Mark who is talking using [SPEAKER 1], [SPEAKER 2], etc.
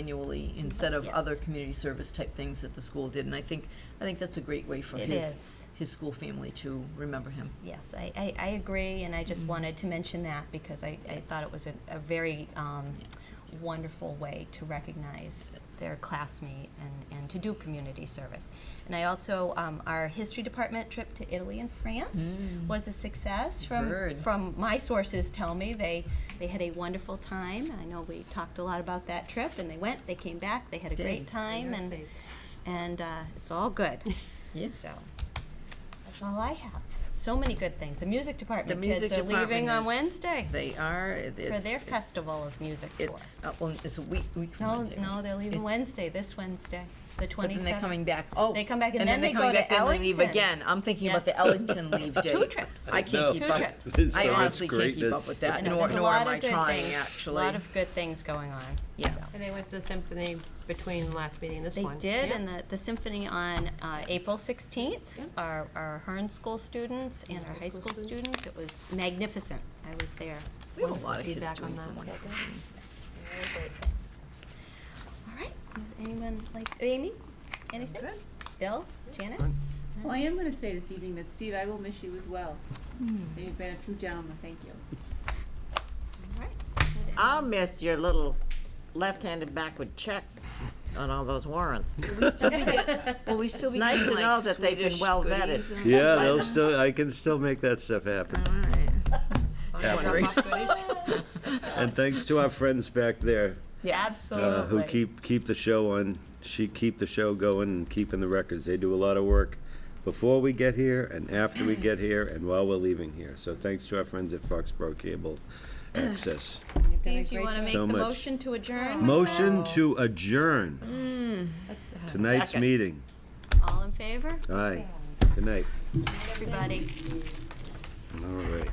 [SPEAKER 1] annually instead of other
[SPEAKER 2] Yes.
[SPEAKER 1] community service type things that the school did. And I think, I think that's a great way for
[SPEAKER 2] It
[SPEAKER 1] his,
[SPEAKER 2] is,
[SPEAKER 1] his school family to remember him.
[SPEAKER 2] yes, I, I, I agree, and I just
[SPEAKER 1] Mhm.
[SPEAKER 2] wanted to mention that because I, I thought
[SPEAKER 1] Yes.
[SPEAKER 2] it was a, a very, um,
[SPEAKER 1] Yes.
[SPEAKER 2] wonderful way to recognize
[SPEAKER 1] Yes.
[SPEAKER 2] their classmate and, and to do community service. And I also, um, our history department trip to Italy and France
[SPEAKER 1] Mm.
[SPEAKER 2] was a success. From
[SPEAKER 1] Heard.
[SPEAKER 2] from my sources tell me they they had a wonderful time. I know we talked a lot about that trip, and they went, they came back, they had a
[SPEAKER 1] Did.
[SPEAKER 2] great time, and and uh, it's all good.
[SPEAKER 1] Yes.
[SPEAKER 2] That's all I have. So many good things. The music department
[SPEAKER 1] The music
[SPEAKER 2] kids are
[SPEAKER 1] department
[SPEAKER 2] leaving on
[SPEAKER 1] is-
[SPEAKER 2] Wednesday
[SPEAKER 1] They are, it- it's.
[SPEAKER 2] for their
[SPEAKER 1] it's-
[SPEAKER 2] festival of music. tour.
[SPEAKER 1] It's, uh, well, it's a week, week from
[SPEAKER 2] No,
[SPEAKER 1] Wednesday.
[SPEAKER 2] no,
[SPEAKER 1] right?
[SPEAKER 2] they're leaving
[SPEAKER 1] It's-
[SPEAKER 2] Wednesday, this Wednesday, the
[SPEAKER 1] But then they're
[SPEAKER 2] 27th.
[SPEAKER 1] coming back, oh.
[SPEAKER 2] They come back and then
[SPEAKER 1] they're
[SPEAKER 2] they
[SPEAKER 1] coming
[SPEAKER 2] go to
[SPEAKER 1] back and they leave
[SPEAKER 2] Ellington.
[SPEAKER 1] Again, I'm thinking about the
[SPEAKER 2] Yes.
[SPEAKER 1] Ellington leave day.
[SPEAKER 2] Two trips.
[SPEAKER 1] I
[SPEAKER 3] No.
[SPEAKER 1] can't keep
[SPEAKER 2] Two
[SPEAKER 1] up.
[SPEAKER 2] trips.
[SPEAKER 3] This
[SPEAKER 1] I
[SPEAKER 3] sounds
[SPEAKER 1] honestly can't keep up
[SPEAKER 3] greatness.
[SPEAKER 1] with
[SPEAKER 2] I
[SPEAKER 1] that,
[SPEAKER 2] know,
[SPEAKER 1] nor,
[SPEAKER 2] there's a
[SPEAKER 1] nor
[SPEAKER 2] lot
[SPEAKER 1] am
[SPEAKER 2] of
[SPEAKER 1] I
[SPEAKER 2] good
[SPEAKER 1] trying,
[SPEAKER 2] things-
[SPEAKER 1] actually.
[SPEAKER 2] A lot of good things going on.
[SPEAKER 1] Yes.
[SPEAKER 4] And they went to the symphony between last meeting and this
[SPEAKER 2] They
[SPEAKER 4] one.
[SPEAKER 2] did,
[SPEAKER 4] Yeah.
[SPEAKER 2] and the, the symphony on uh,
[SPEAKER 1] Yes.
[SPEAKER 2] April 16th,
[SPEAKER 4] Yep.
[SPEAKER 2] our, our Hearn School students and our high school students, it was magnificent. I was there.
[SPEAKER 1] We have a lot of kids
[SPEAKER 4] Feedback on
[SPEAKER 1] doing
[SPEAKER 4] that.
[SPEAKER 1] some wonderful things.
[SPEAKER 2] Very great things. All right, anyone like, Amy, anything? Bill, Janet?
[SPEAKER 5] Well, I am going to say this evening that Steve, I will miss you as well.
[SPEAKER 2] Hmm.
[SPEAKER 5] You've been a true gentleman. Thank you.
[SPEAKER 2] All right.
[SPEAKER 6] I'll miss your little left-handed backward checks on all those warrants.
[SPEAKER 1] Well, we still
[SPEAKER 6] It's nice to know that they've been well vetted.
[SPEAKER 3] Yeah, they'll still, I can still make that stuff happen. And thanks to our friends back there,
[SPEAKER 1] Yes.
[SPEAKER 3] uh, who
[SPEAKER 2] Absolutely.
[SPEAKER 3] keep, keep the show on, she keep the show going and keeping the records. They do a lot of work before we get here and after we get here and while we're leaving here. So thanks to our friends at Foxborough Cable Access.
[SPEAKER 2] Steve, do you want to make
[SPEAKER 3] So
[SPEAKER 2] the
[SPEAKER 3] much.
[SPEAKER 2] motion to adjourn?
[SPEAKER 3] Motion to adjourn tonight's
[SPEAKER 6] Second.
[SPEAKER 3] meeting.
[SPEAKER 2] All in favor?
[SPEAKER 3] Aye. Good night.
[SPEAKER 2] Everybody.
[SPEAKER 3] All right.